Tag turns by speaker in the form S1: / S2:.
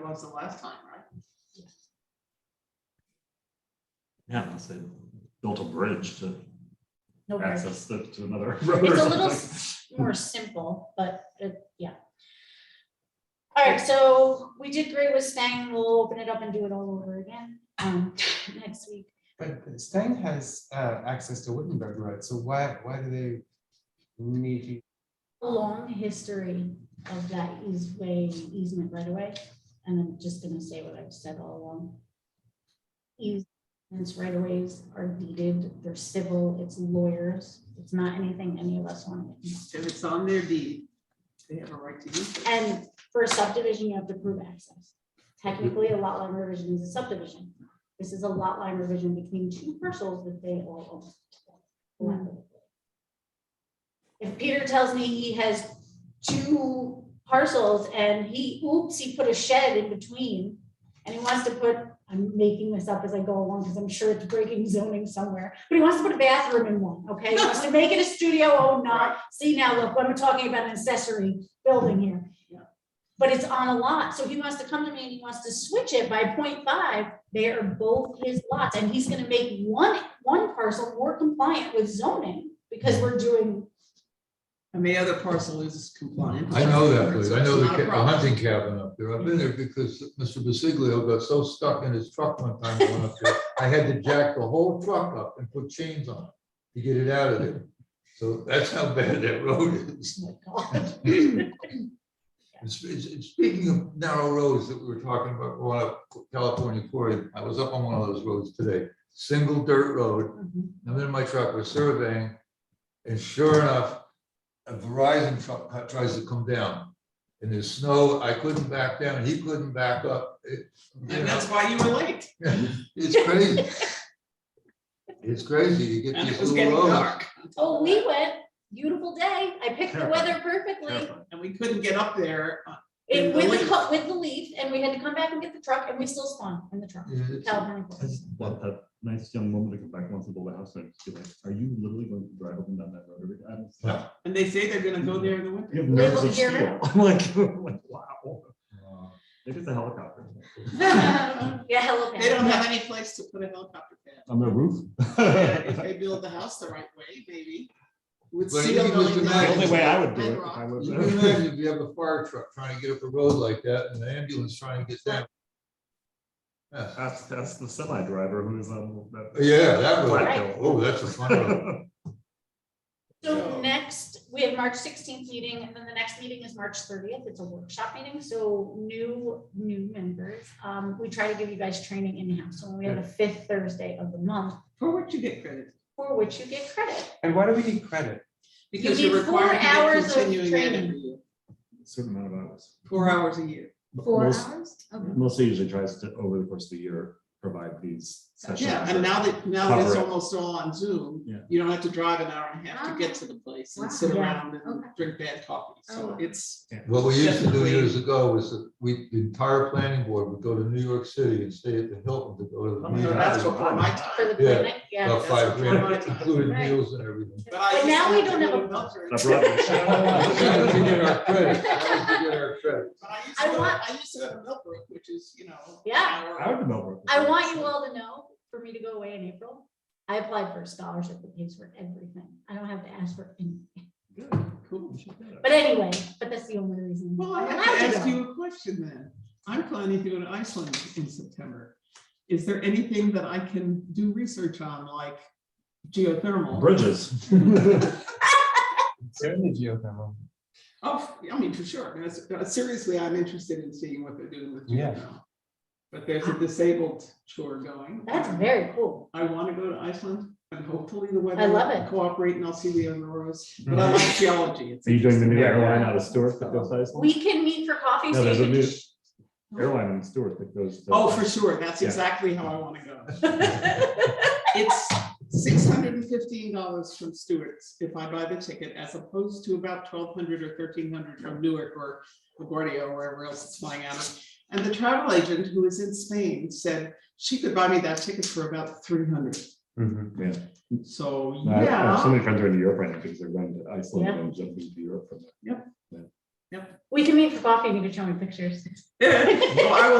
S1: was the last time, right?
S2: Yeah, unless they built a bridge to
S3: No worries.
S2: access the, to another road or
S3: It's a
S2: something.
S3: little s- more simple, but it- yeah. All right, so we did great with Stang. We'll open it up and do it all over again um, next week.
S4: But Stang has uh, access to Wittenberg Road, so why, why do they need to?
S3: Long history of that easeway easement right away. And I'm just gonna say what I've said all along. Easements right aways are deeded, they're civil, it's lawyers, it's not anything any of us want to get.
S1: If it's on their deed, they have a right to use it.
S3: And for a subdivision, you have to prove access. Technically, a lot line revision is a subdivision. This is a lot line revision between two parcels that they all own. If Peter tells me he has two parcels and he, oops, he put a shed in between and he wants to put, I'm making this up as I go along because I'm sure it's breaking zoning somewhere, but he wants to put a bathroom in one, okay? He wants to make it a studio, oh, no, see now, look, what I'm talking about, an accessory building here but it's on a lot, so he wants to come to me and he wants to switch it by 0.5. they are both his lots, and he's gonna make one, one parcel more compliant with zoning, because we're doing,
S1: And the other parcel is compliant.
S5: I know that place. I
S1: It's
S5: know the
S1: not a
S5: ca- the
S1: problem.
S5: hunting cabin up there. I've been there because Mr. Basiglio got so stuck in his truck one time going up there. I had to jack the whole truck up and put chains on it to get it out of there. So that's how bad that road is.
S3: oh my God.
S5: And sp- and s- Speaking of narrow roads that we were talking about, going up California Quarry, I was up on one of those roads today, single dirt road. I'm in my truck, we're surveying, and sure enough, a Verizon truck cut- tries to come down. And there's snow, I couldn't back down, he couldn't back up. It- you
S1: And that's
S5: know,
S1: why you were late,
S5: It's crazy. It's crazy, you get
S1: and it
S5: these
S1: was getting
S5: little roads.
S1: dark.
S3: Oh, we went, beautiful day, I picked the weather perfectly,
S1: And we couldn't get up there. uh,
S3: it, with the, co- with the leaf, and we had to come back and get the truck, and we still spawned in the truck.
S5: Yeah, it's-
S3: California.
S2: I just want that nice young woman to come back once and build a house and just be like, are you literally going to drive up and down that road every time? It's like,
S1: And they say they're gonna
S5: Mm-hmm.
S1: go there in the winter.
S2: You have nerves of
S3: Little
S2: steel.
S3: German.
S2: I'm like, I'm like, wow.
S5: Uh,
S2: Maybe it's a helicopter.
S3: Yeah, hello.
S1: They don't have any place to put a helicopter pad.
S2: On the roof.
S1: Yeah, If
S2: The
S1: they build the house the right way, maybe. With
S5: But
S1: seal
S5: even with
S1: going
S5: the
S1: down
S2: only way I would do
S1: and
S2: it if I
S1: rock.
S2: lived
S5: You
S2: there.
S5: can imagine if you have a fire truck trying to get up a road like that and an ambulance trying to get down. Yeah.
S2: That's, that's the semi driver who is on that.
S5: Yeah, that
S2: Black
S5: would,
S2: Hill.
S5: oh, that's a fun one.
S3: So
S1: So-
S3: next, we have March sixteenth meeting, and then the next meeting is March thirtieth, it's a workshop meeting, so new, new members. Um, we try to give you guys training in-house, so we have the fifth Thursday of the month,
S1: For what you get credit,
S3: for which you get credit.
S4: And why do we need credit?
S1: because
S3: need
S1: you're
S3: four
S1: required to
S3: hours
S1: get
S3: of
S1: continuing ed
S3: training.
S1: every year,
S2: Certain amount of hours.
S1: four hours a year.
S2: Most-
S3: Okay.
S2: Mostly usually tries to, over the course of the year, provide these sessions.
S1: Yeah,
S2: that-
S1: and now that, now that it's
S2: Cover it.
S1: almost all on Zoom,
S2: Yeah.
S1: you don't have to drive an hour and a half to get to the place and sit
S3: Ah, Wow. Yeah.
S1: around and
S3: Okay. Oh.
S1: drink bad coffee, so it's.
S5: What we used to do
S1: Definitely.
S5: years ago was that we, the entire planning board would go to New York City and stay at the Hilton to go to the
S1: I mean, Oh, That's
S5: meeting.
S1: before my
S3: For
S1: time,
S3: the
S5: Yeah.
S3: clinic, yeah.
S5: About five grand, including
S3: Right.
S5: meals and everything.
S1: but I.
S3: But
S1: used
S3: now
S1: to
S3: we
S1: have
S3: don't
S1: to
S3: have
S1: go
S3: a-
S1: to Milford.
S2: I brought you-
S5: That was to get our credit, that was to get our credit.
S1: But I used
S3: I
S1: to, go-
S3: want-
S1: I used to go to Milford, which is, you know.
S3: Yeah.
S1: hour-
S2: I would know. where-
S3: I want you all to know, for me to go away in April, I applied for a scholarship that pays for everything. I don't have to ask for anything.
S1: Good, cool.
S3: But anyway, but that's the only reason.
S1: Well, I
S3: I'm
S1: have to
S3: allowed to
S1: ask
S3: go.
S1: you a question then. I'm planning to go to Iceland in September. Is there anything that I can do research on, like geothermal?
S2: Bridges.
S4: Certainly geothermal.
S1: Oh, I mean, for sure. I mean, that's- uh, Seriously, I'm interested in seeing what they're doing with
S4: Yeah.
S1: geothermal. But there's a disabled tour going.
S3: That's very cool.
S1: I want to go to Iceland and hopefully the weather.
S3: I love
S1: will
S3: it.
S1: Cooperate and I'll see the Auroras, but I like geology. It's
S2: Mm-hmm. Are you doing the
S1: interesting.
S2: new
S4: Yeah,
S2: airline
S4: yeah.
S2: out of Stewart that goes to Iceland?
S3: We can meet for coffee.
S2: No,
S3: so
S2: there's
S3: you
S2: a
S3: can-
S2: new airline in Stewart that goes. to-
S1: Oh, for sure. That's
S2: Yeah.
S1: exactly how I want to go. It's six hundred and fifteen dollars from Stewart's if I buy the ticket, as opposed to about twelve hundred or thirteen hundred from Newark or LaGuardia or wherever else it's flying out of. And the travel agent who is in Spain said she could buy me that ticket for about three hundred. So,
S2: No, Mm-hmm. I- I have So
S1: yeah,
S2: many friends are in Europe right now because they're going to Iceland
S3: Yeah.
S2: and jumping to Europe from there.
S3: We can meet for coffee and you can show me pictures.
S1: Well, I will